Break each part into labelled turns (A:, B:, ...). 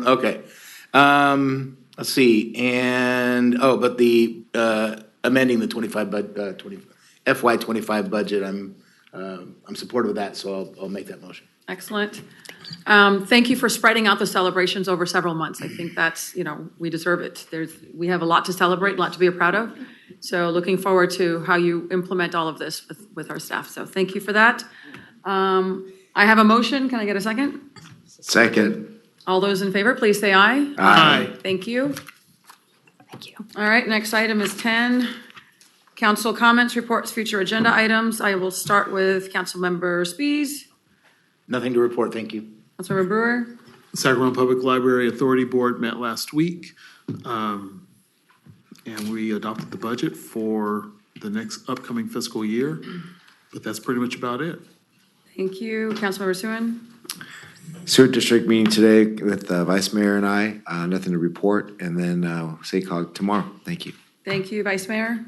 A: Mm, Okay. Um, let's see, and, oh, but the, uh, amending the twenty-five bud, uh, twenty, FY twenty-five budget, I'm, um, I'm supportive of that, so I'll, I'll make that motion.
B: Excellent. Um, Thank you for spreading out the celebrations over several months. I think that's, you know, we deserve it. There's, we have a lot to celebrate, a lot to be proud of. So looking forward to how you implement all of this with, with our staff. So thank you for that. Um, I have a motion. Can I get a second?
A: Second.
B: All those in favor, please say aye.
A: Aye.
B: Thank you.
C: Thank you.
B: All right, next item is 10, council comments, reports, future agenda items. I will start with Councilmember Spies,
A: Nothing to report, thank you.
B: Councilmember Brewer.
D: Sacramento Public Library Authority Board met last week. um, And we adopted the budget for the next upcoming fiscal year, but that's pretty much about it.
B: Thank you. Councilmember Suen.
E: Sewer District meeting today with uh, Vice Mayor and I, Uh, nothing to report, and then uh, SEACOG tomorrow. Thank you.
B: Thank you, Vice Mayor.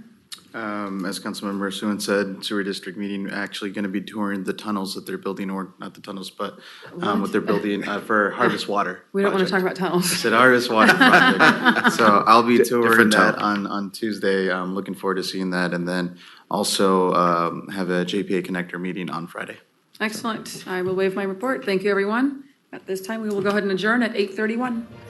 F: Um, As Councilmember Suen said, sewer district meeting actually going to be touring the tunnels that they're building, or not the tunnels, but um, what they're building uh, for Harvest Water.
B: We don't want to talk
F: project.
B: about tunnels.
F: It's at Harvest Water Project. So I'll be touring
E: different
F: that
E: topic.
F: on, on Tuesday. I'm looking forward to seeing that. And then also um, have a JPA Connector meeting on Friday.
B: Excellent. I will waive my report. Thank you, everyone. At this time, we will go ahead and adjourn at 8:31.